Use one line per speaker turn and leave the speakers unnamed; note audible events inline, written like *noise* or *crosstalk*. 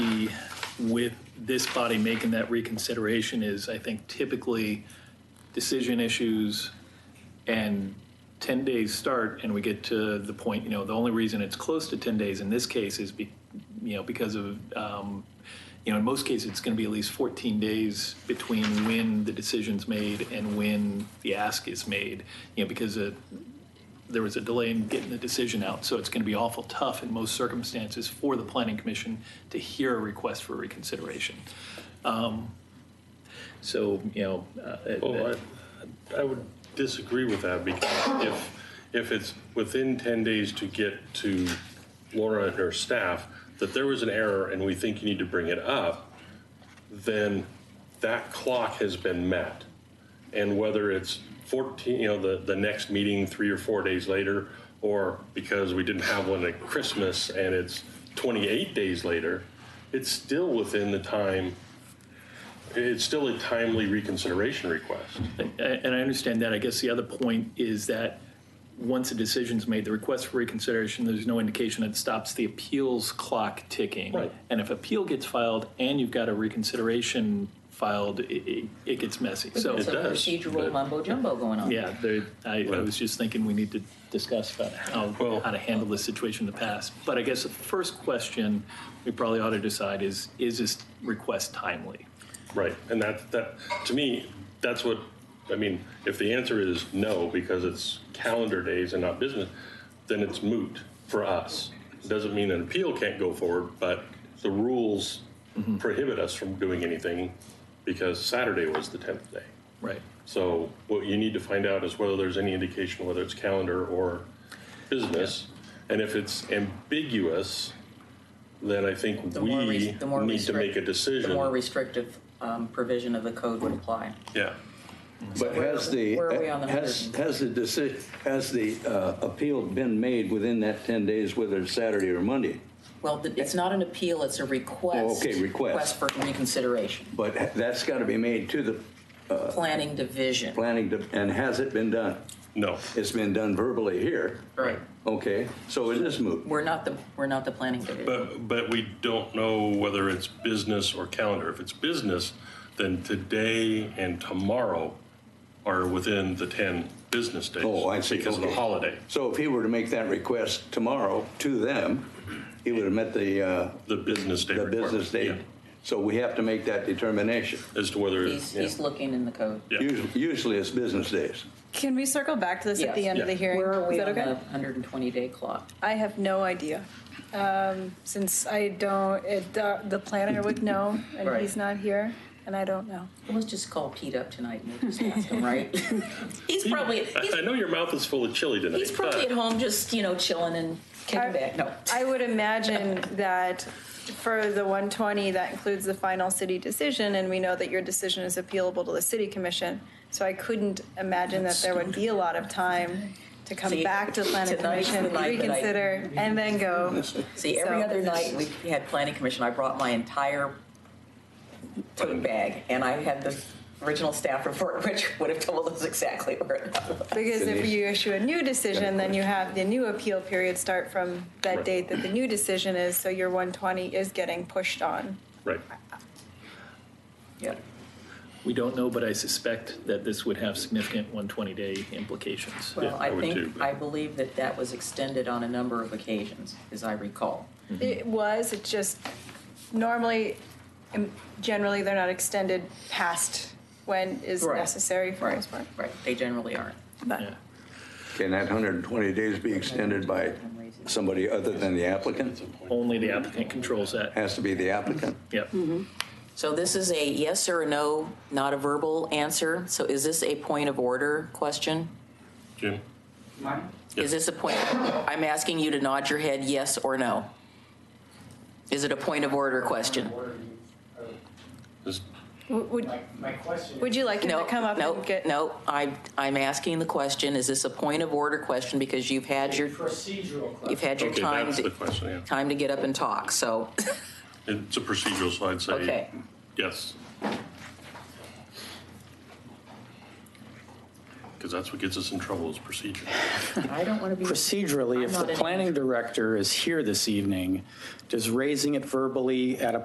with this body making that reconsideration is, I think typically, decision issues and 10 days start, and we get to the point, you know, the only reason it's close to 10 days in this case is, be- you know, because of, um, you know, in most cases, it's going to be at least 14 days between when the decision's made and when the ask is made, you know, because uh, there was a delay in getting the decision out. So it's going to be awful tough in most circumstances for the planning commission to hear a request for reconsideration. Um, So, you know. uh,
Well, I, I would disagree with that because if, if it's within 10 days to get to Laura and her staff, that there was an error and we think you need to bring it up, then that clock has been met. And whether it's 14, you know, the, the next meeting three or four days later, or because we didn't have one at Christmas and it's 28 days later, it's still within the time, it's still a timely reconsideration request.
A- And I understand that. I guess the other point is that once a decision's made, the request for reconsideration, there's no indication that stops the appeals clock ticking.
Right.
And if appeal gets filed and you've got a reconsideration filed, it, it, it gets messy. So,
It
It's a
does, but-
procedural mumbo jumbo going on.
yeah, there, I, I was just thinking we need to discuss about how,
Well-
how to handle this situation in the past. But I guess the first question we probably ought to decide is, is this request timely?
Right, and that, that, to me, that's what, I mean, if the answer is no, because it's calendar days and not business, then it's moot for us. Doesn't mean an appeal can't go forward, but the rules prohibit us from doing anything because Saturday was the 10th day.
Right.
So what you need to find out is whether there's any indication whether it's calendar or business. And if it's ambiguous, then I think
The
we
more res- the more
need to make
restrict-
a decision.
The more restrictive um, provision of the code would apply.
Yeah.
But has the,
where are we on the
has,
100?
has the decision, has the uh, appeal been made within that 10 days, whether it's Saturday or Monday?
Well, th- it's not an appeal, it's a request.
Oh, okay,
Request
request.
for reconsideration.
But that's got to be made to the
Planning division.
planning, de- and has it been done?
No.
It's been done verbally here.
Right.
Okay, so it is moot.
We're not the, we're not the planning division.
But, but we don't know whether it's business or calendar. If it's business, then today and tomorrow are within the 10 business days.
Oh, I see.
Because of the
Okay.
holiday.
So if he were to make that request tomorrow to them, he would have met the, uh,
The business day
the
requirement.
business date.
Yeah.
So we have to make that determination.
As to whether,
He's,
yeah.
he's looking in the code.
Yeah.
Usually, usually it's business days.
Can we circle back to this at the
Yes.
end of the
Yeah.
hearing?
Where are
Is
we
that
on
okay?
the 120-day clock?
I have no idea. Um, since I don't, it, uh, the, the planner would know,
*laughs*
and
Right.
he's not here, and I don't know.
Well, Let's just call Pete up tonight and we'll just ask
*laughs*
him, right? He's probably, he's
I, I know your mouth is full of chili tonight.
He's probably
but-
at home just, you know, chilling and kicking back. No.
I would imagine that for the 120, that includes the final city decision, and we know that your decision is appealable to the city commission. So I couldn't imagine that there would be a lot of time to come
See,
back to the planning
tonight's the
commission,
night that I-
reconsider, and then go.
See, every
So-
other night we had planning commission, I brought my entire tote bag and I had the original staff report, *laughs* which would have told us exactly where it was.
Because if
Denise?
you issue a new decision, then you have the new appeal period start from that
Right.
date that the new decision is, so your 120 is getting pushed on.
Right.
Yep.
We don't know, but I suspect that this would have significant 120-day implications.
Well,
I
I
would too,
think,
but-
I believe that that was extended on a number of occasions, as I recall.
It was, it just, normally, um, generally, they're not extended past when is
Right.
necessary for most part.
Right, they generally aren't.
Yeah.
But
Can that 120 days be extended by somebody other than the applicant?
Only the applicant controls that.
Has to be the applicant.
Yep.
So this is a yes or a no, not a verbal answer. So is this a point of order question?
Jim?
Is this a point, I'm asking you to nod your head yes or no. Is it a point of order question?
Is-
w- would,
My, my question
would you like him
No,
to come up
no,
and get?
no, I, I'm asking the question, is this a point of order question? Because you've had
is
your,
procedural question.
you've had your
Okay,
time,
that's the
to-
question, yeah.
time to get up and talk, so,
It's a procedural, so I'd
okay.
say, yes. Because that's what gets us in trouble is procedure.
I don't want to be.
Procedurally,
I'm
if
not
the
an
planning director is here this evening, does raising it verbally at a